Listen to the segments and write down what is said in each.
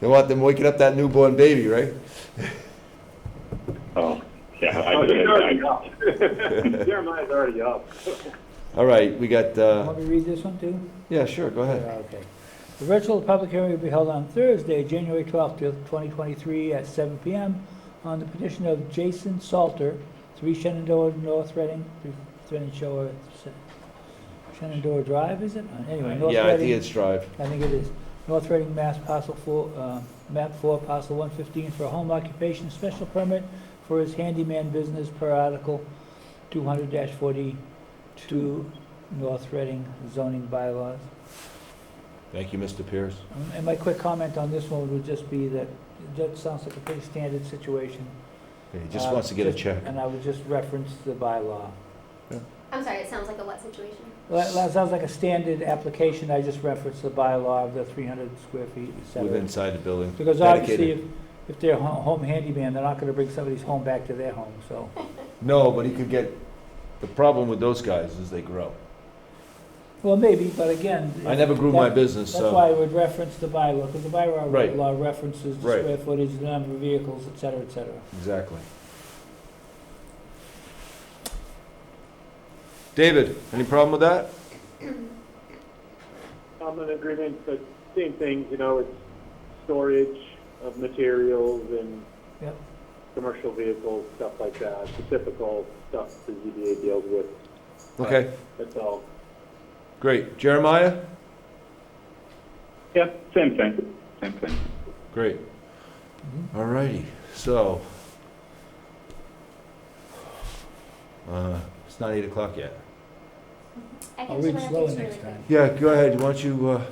They want them waking up that newborn baby, right? Oh, yeah. I Oh, did he's it. already I- up. Jeremiah's already up. All right, we got, uh, Want me to read this one too? yeah, sure, go Yeah, ahead. Okay. The virtual public hearing will be held on Thursday, January 12th, 2023, at 7 PM on the petition of Jason Salter, 3 Shenandoah North Reading, 3 Shenandoah, Shenandoah Drive, is it? Anyway, North Reading. Yeah, I think it's Drive. I think it is. North Reading, Mass, parcel four, uh, map four, parcel one fifteen, for a home occupation special permit for his handyman business per article two hundred forty-two, North Reading zoning bylaws. Thank you, Mr. Pierce. Um, And my quick comment on this one would just be that, that sounds like a pretty standard situation. He just Uh, wants to get a just- check. And I would just reference the bylaw. I'm sorry, it sounds like a what situation? That, that sounds like a standard application, I just referenced the bylaw of the three hundred square feet, et cetera. With inside the building. Because obviously, dedicated. if, if they're ho- home handyman, they're not gonna bring somebody's home back to their home, so. No, but he could get, the problem with those guys is they grow. Well, maybe, but again. I never grew my that- business, That's why I so. would reference the bylaw, because the Right. bylaw law references the Right. square footage, the number of vehicles, et cetera, et cetera. Exactly. David, any problem with that? I'm in agreement, but same thing, you know, it's storage of materials and Yep. commercial vehicles, stuff like that, the typical stuff the ZBA deals with, Okay, that's all. great. Jeremiah? Yeah, same thing, same thing. Great. All righty, so. Uh, It's not eight o'clock yet. I can I'll do read my slower updates Oh, next really time. Yeah, go ahead, why don't you, uh,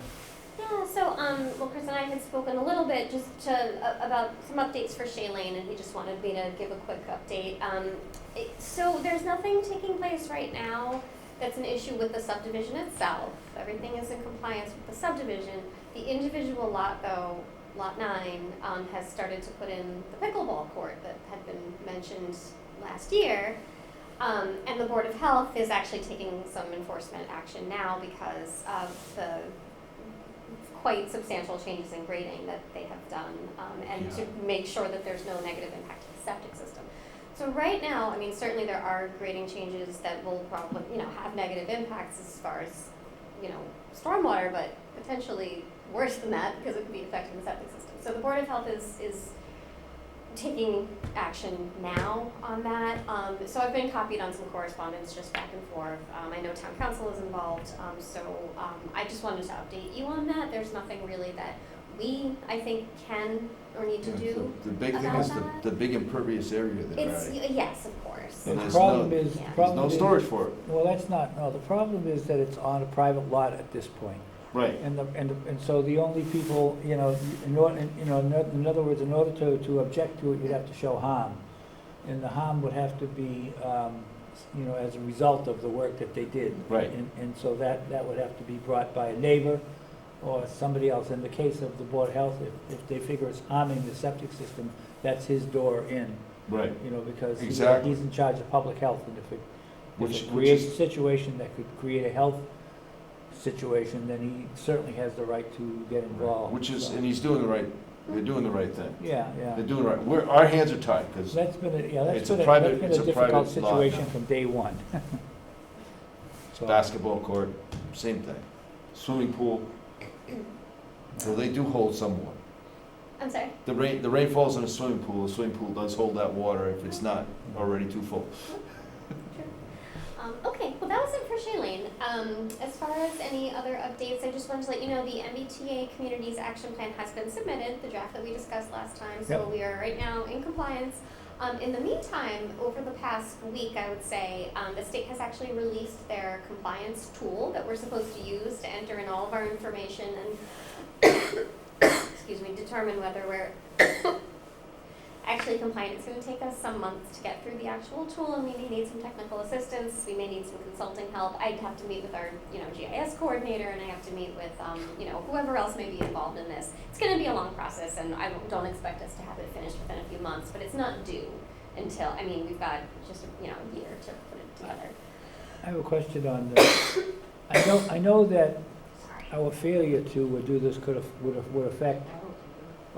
Yeah, so, um, well, Chris and I had spoken a little bit just to, a- about some updates for Shay Lane, and he just wanted me to give a quick update. Um, it, so there's nothing taking place right now that's an issue with the subdivision itself. Everything is in compliance with the subdivision. The individual lot, though, Lot Nine, um, has started to put in the pickleball court that had been mentioned last year. Um, and the Board of Health is actually taking some enforcement action now because of the quite substantial changes in grading that they have done, um, and to make sure that there's no negative impact to the septic system. So right now, I mean, certainly there are grading changes that will probably, you know, have negative impacts as far as, you know, stormwater, but potentially worse than that because it could be affecting the septic system. So the Board of Health is, is taking action now on that. Um, so I've been copied on some correspondence just back and forth. Um, I know town council is involved, um, so, um, I just wanted to update you on that. There's nothing really that we, I think, can or need to do. The big thing about is the, that? the big impervious area there, It's, right? yes, of course. And The there's problem no- is, the there's no There's problem no is- storage for it, Well, that's not, no, the problem is that it's on a private lot at this point. right. And the, and, the- and so the only people, you know, in order, you know, in oth- in other words, in order to, to object to it, you'd have to show harm. And the harm would have to be, um, you know, as a result of the work that they did. Right. And, and so that, that would have to be brought by a neighbor or somebody else. In the case of the Board of Health, if, if they figure it's harming the septic system, that's his door in, Right. you know, because he's, Exactly. he's in charge of public health. And if it Which- which if it creates a is- situation that could create a health situation, then he certainly has the right to get involved. Which is, so. and he's doing the right, they're doing the right thing. Yeah, yeah. They're doing right, we're, our hands are tied, because, That's been, a- yeah, It's that's a been, a- private- that's been it's a a difficult private lot. situation from day one. So, basketball court, same thing. Swimming pool, so they do hold some water. I'm sorry. The rain, the rain falls in a swimming pool, the swimming pool does hold that water if it's not already too full. Um, okay, well, that was it for Shailene. Um, as far as any other updates, I just wanted to let you know the MBTA Communities Action Plan has been submitted, the draft that we discussed last time, so Yep. we are right now in compliance. Um, in the meantime, over the past week, I would say, um, the state has actually released their compliance tool that we're supposed to use to enter in all of our information and, excuse me, determine whether we're actually compliant. It's going to take us some months to get through the actual tool, and we may need some technical assistance. We may need some consulting help. I'd have to meet with our, you know, GIS coordinator, and I have to meet with, um, you know, whoever else may be involved in this. It's going to be a long process, and I don't- don't expect us to have it finished within a few months, but it's not due until, I mean, we've got just, you know, a year to put it together. I have a question on the, I know, I know that Sorry. our failure to do this could have, would have, would affect I